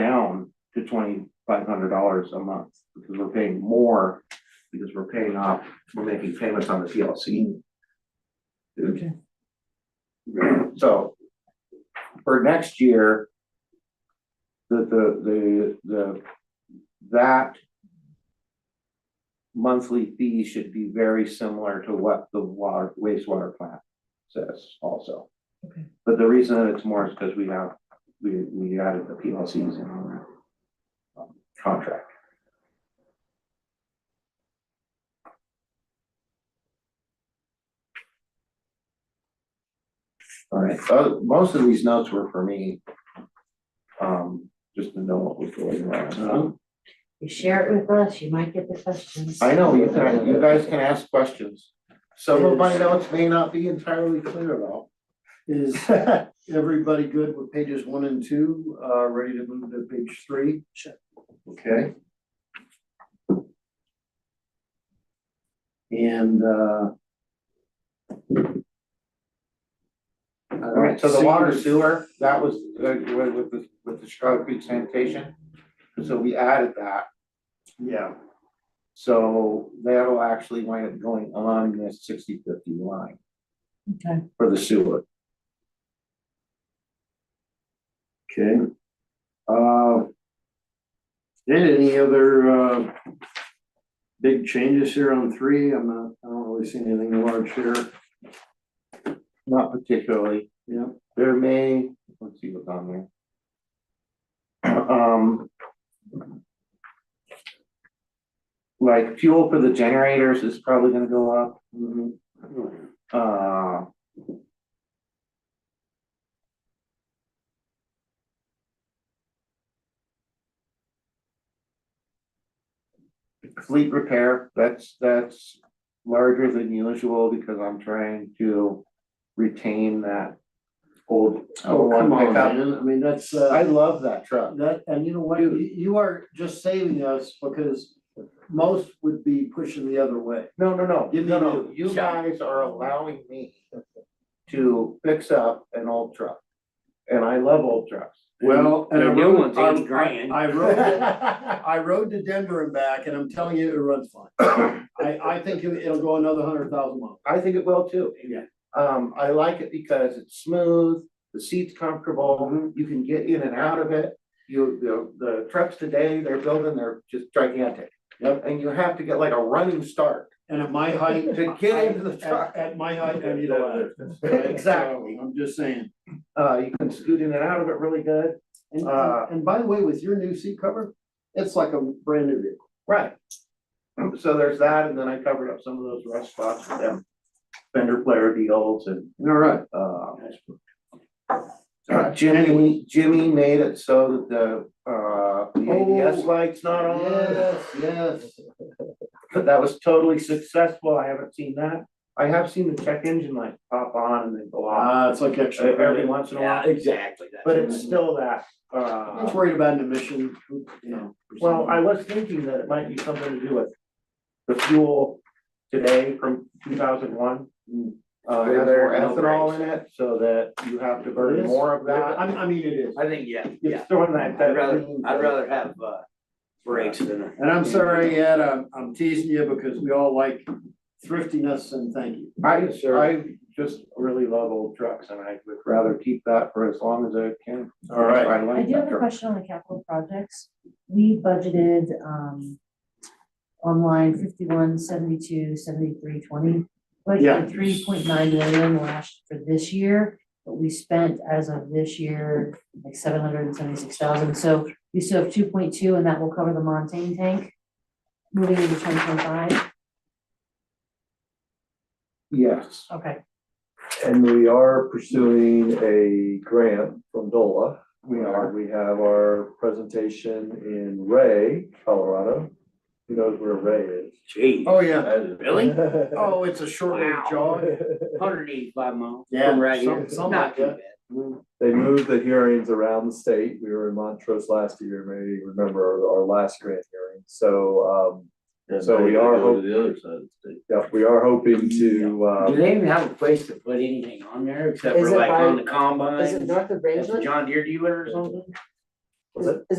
down to twenty-five hundred dollars a month, because we're paying more, because we're paying off, we're making payments on the PLC. Okay. So for next year, the, the, the, the, that monthly fee should be very similar to what the water wastewater plant says also. Okay. But the reason that it's more is because we have, we, we added the PLCs in our um, contract. All right, so most of these notes were for me. Um, just to know what was going on. You share it with us, you might get the questions. I know, you guys, you guys can ask questions. Some of my notes may not be entirely clear though. Is everybody good with pages one and two, uh, ready to move to page three? Okay. And, uh. I don't All right, so the see- water sewer, that was uh, with, with, the- with the Chicago Creek sanitation. So we added that, Yeah, so that'll actually wind up going on this sixty fifty line Okay. for the sewer. okay. Uh. Did any other, uh, big changes here on three? I'm not, I don't really see anything large here. Not particularly. Yeah. There may, let's see what's on there. Um. Like fuel for the generators is probably gonna go up, Mhm. uh. Fleet repair, that's, that's larger than usual because I'm trying to retain that old. Oh, come on, pickup. man. I mean, that's, uh. I love that truck. That, and you know what, you, you are just saving us because most would be pushing the other way. No, no, no, Give me no, no, the- you guys are allowing me to fix up an old truck. And I love old trucks. Well, and I The new rode, one's I, eight grand. I rode, to- I rode to Denver and back and I'm telling you, it runs fine. I, I think it- it'll go another hundred thousand miles. I think it will too. Yeah. Um, I like it because it's smooth, the seat's comfortable, you can get in and out of it. You, the, the trucks today, they're building, they're just gigantic. Yep. And you have to get like a running start And at my height. to get into the at- truck. At my height, I need a ladder. Exactly. I'm just saying. Uh, you can scoot in and out of it really good. And, Uh, and by the way, with your new seat cover, it's like a brand new vehicle. Right. So there's that, and then I covered up some of those rust spots with them fender player deals and, All right. uh. uh, Jimmy, Jimmy made it so that the, uh, the ABS Oh, light's not on, Yes, yes. but that was totally successful, I haven't seen that. I have seen the check engine light pop on and then go off Ah, it's like uh, extra. every credit. once in a Yeah, while, exactly. Ah. that's but it. it's still that, I'm just uh, worried about an emission, you know. or well, I something. was thinking that it might be something to do with the fuel today from two thousand one. Mm. Uh, There- has there more are no ethanol in brakes. it, so that you have to It burn is? more of that. Uh, I, I mean, it is. I think, yeah, yeah. It's throwing that, that. I'd rather, green I'd thing. rather have, uh, brakes than a. And I'm sorry, Ed, I'm, I'm teasing you because we all like thriftiness and thank you. I, I just really love old trucks and I would rather keep that for as long as I can. All right. I I like do that have a truck. question on the capital projects. We budgeted, um, on line fifty-one, seventy-two, seventy-three, twenty. Yeah. Budgeted three point nine million last, for this year, but we spent as of this year, like seven hundred and seventy-six thousand. So we still have two point two and that will cover the Montane tank moving into twenty twenty-five. Yes, Okay, And we are pursuing a grant from DOLA. we are. We have our presentation in Ray, Colorado. Who knows where Ray is? Gee, Oh, yeah. really? Oh, it's a short Wow. jaw. Hundred eighty-five miles Yeah, from right here. some- something Not like too that. bad. They moved the hearings around the state. We were in Montrose last year, maybe you remember our, our last grant hearing. So, um, so we are. hoping the other side of the state. Yeah, we are hoping to, Do uh, they even have a place to put anything on there except for Is it like by- on the Uh, Is it combine? north of That's a Rangeland? John Deere dealer or something? what's it? Is it